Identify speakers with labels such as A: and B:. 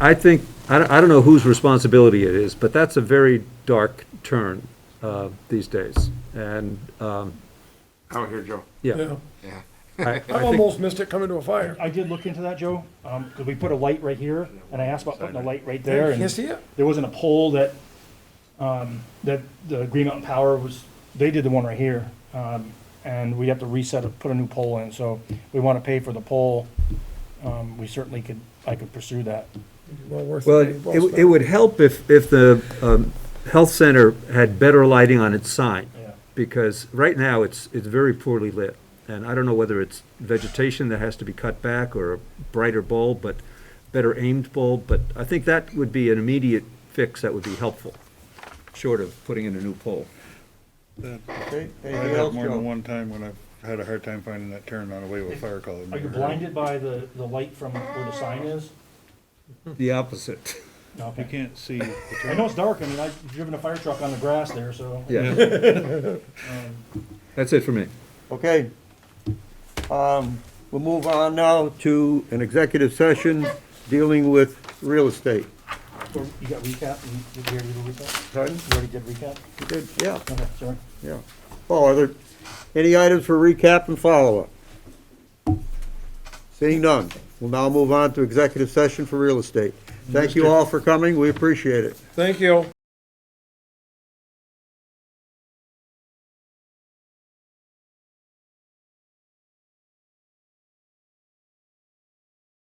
A: I think, I don't, I don't know whose responsibility it is, but that's a very dark turn, uh, these days. And, um,
B: Out here, Joe.
A: yeah.
C: Yeah,
B: Yeah.
A: I- I
C: I've
A: think-
C: almost missed it coming to a fire.
D: I did look into that, Joe, um, 'cause we put a light right here, and I asked about putting a light right there,
C: Can't
D: and
C: see it?
D: there wasn't a pole that, um, that the Green Mountain Power was, they did the one right here, um, and we have to reset it, put a new pole in, so we wanna pay for the pole, um, we certainly could, I could pursue that.
C: Well worth
A: Well,
C: it. Well
A: it, it
C: spent.
A: would help if, if the, um, health center had better lighting on its sign.
D: Yeah.
A: Because right now, it's, it's very poorly lit. And I don't know whether it's vegetation that has to be cut back or a brighter bulb, but better aimed bulb. But I think that would be an immediate fix that would be helpful, short of putting in a new pole.
E: I've had more than one time when I've had a hard time finding that turn on a way with fire color.
D: Are you blinded by the, the light from where the sign is?
A: The opposite.
D: No,
E: You
D: okay.
E: can't see the
D: I
E: turn.
D: know it's dark, I mean, I've driven a fire truck on the grass there, so.
A: Yeah. That's it for me.
F: Okay. Um, We'll move on now to an executive session dealing with real estate.
D: Or You got recap, you, did you already do recap?
F: Pardon?
D: You already did recap?
F: You did? Yeah,
D: Okay, sorry.
F: yeah. Oh, are there any items for recap and follow-up? Seeing none, we'll now move on to executive session for real estate. Thank you all for coming, we appreciate it.
C: Thank you.